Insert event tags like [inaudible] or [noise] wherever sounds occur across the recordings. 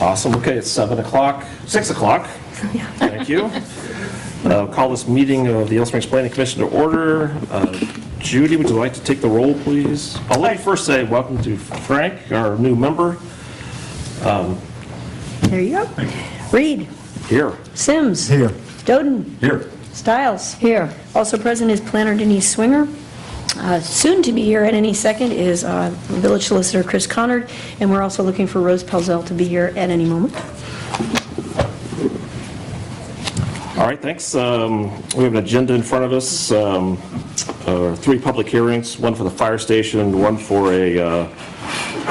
Awesome, okay, it's 7 o'clock, 6 o'clock. Thank you. Uh, Call this meeting of the Yellow Springs Planning Commission to order. Uh, Judy, would you like to take the roll, please? I'll let you first say welcome to Frank, our new member. There you go. Reed, Here. Sims. Here. Doden, Here. Stiles. Here. Also present is planner Denise Swinger. Uh, Soon to be here at any second is uh, village solicitor Chris Connard, and we're also looking for Rose Pelzel to be here at any moment. All right, thanks. Um, We have an agenda in front of us, um, uh, three public hearings, one for the fire station, one for a uh,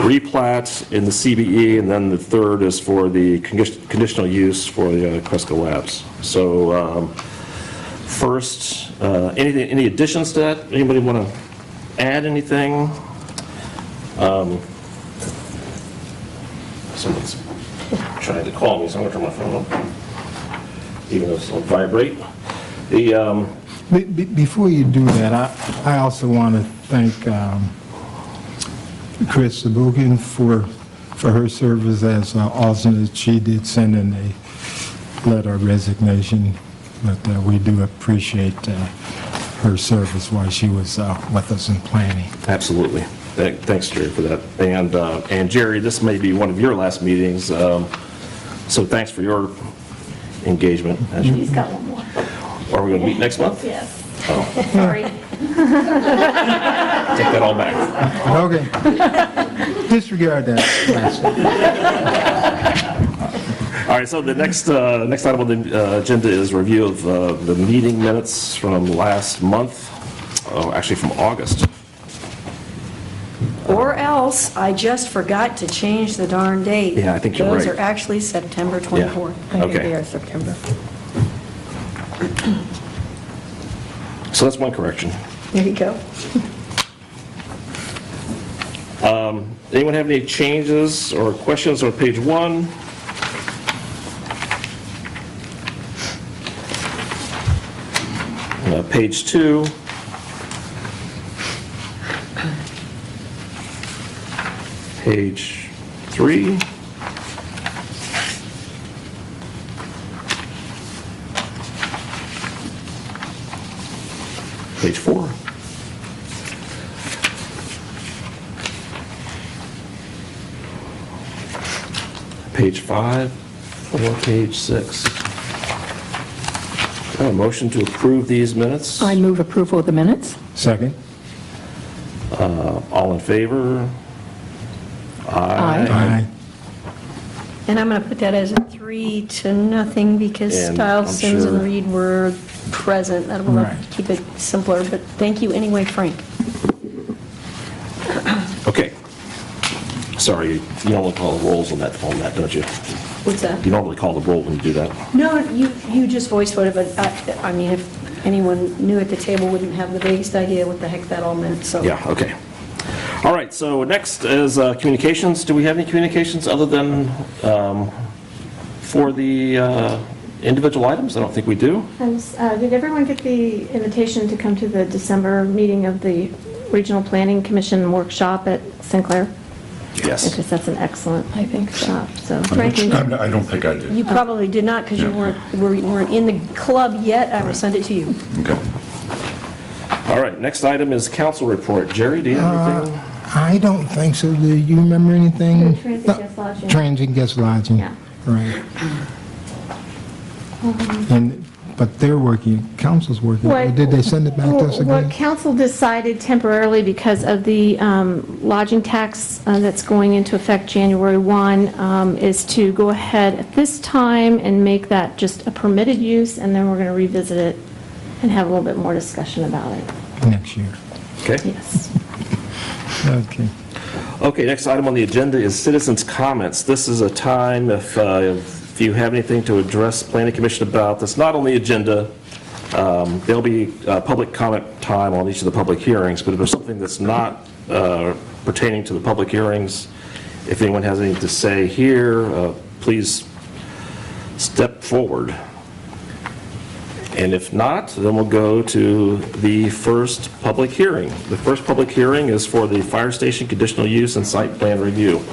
replat in the CBE, and then the third is for the condi- conditional use for the uh, Cresco Labs. So um, first, uh, anything, any additions to that? Anybody want to add anything? Um, Someone's trying to call me, so I'm going to turn my phone off even though it'll vibrate. The, um, Be- be- Before you do that, I I also want to thank um, Chris Sabukin for, for her service as uh, alternate. She did send in a letter of resignation, but uh, we do appreciate uh, her service while she was uh, with us in planning. absolutely. Thank- Thanks, Jerry, for that. And, uh, and Jerry, this may be one of your last meetings, um, so thanks for your engagement. He's got one more. Are we going to meet next month? Take Yes. Sorry. that all back. Okay. [laughs] Disregard [laughs] that. All right, so the next, uh, next item on the uh, agenda is review of uh, the meeting minutes from last month, oh, actually from August. Or else, I just forgot to change the darn date. Yeah, I think you're Those right. are actually September 24. Yeah, okay. I think they are September. So that's one correction. There you go. Anyone have any changes or questions on page one? Uh, Page two? Page three? Page four? Page five or page six? Uh, Motion to approve these minutes? I move approval of the minutes. Second? All in favor? Aye. Aye. And I'm going to put that as a three to nothing because And Stiles, I'm Sims, and sure- Reed were present. That will Right. keep it simpler, but thank you anyway, Frank. Okay. Sorry, you normally call the rolls on that, on that, don't you? What's You that? normally call the roll when you do that. No, you, you just voice voted, but I, I mean, if anyone new at the table wouldn't have the vaguest idea what the heck that all meant, so. Yeah, okay. All right, so next is uh, communications. Do we have any communications other than um, for the uh, individual items? I don't think we do. Um, s- uh, Did everyone get the invitation to come to the December meeting of the Regional Planning Commission workshop at Sinclair? Yes. Because that's an excellent I think so. workshop, so. Frank, you- I'm- I don't think I did. you probably did not because you weren't, were- weren't in the club yet. I will send it to you. Okay. All right, next item is council report. Jerry, do you have anything? I don't think so. Do you remember anything? The transient guest lodging. Transient guest lodging. Yeah. Um, Right. And, but they're working, council's working. What- Did they send it back to us What again? council decided temporarily because of the um, lodging tax uh, that's going into effect January 1 um, is to go ahead at this time and make that just a permitted use, and then we're going to revisit it and have a little bit more discussion about it. Next year. Okay. Yes. Okay. Okay, next item on the agenda is citizens' comments. This is a time, if uh, if you have anything to address planning commission about, that's not on the agenda, um, there'll be uh, public comment time on each of the public hearings, but if there's something that's not uh, pertaining to the public hearings, if anyone has anything to say here, uh, please step forward. And if not, then we'll go to the first public hearing. The first public hearing is for the fire station conditional use and site plan review.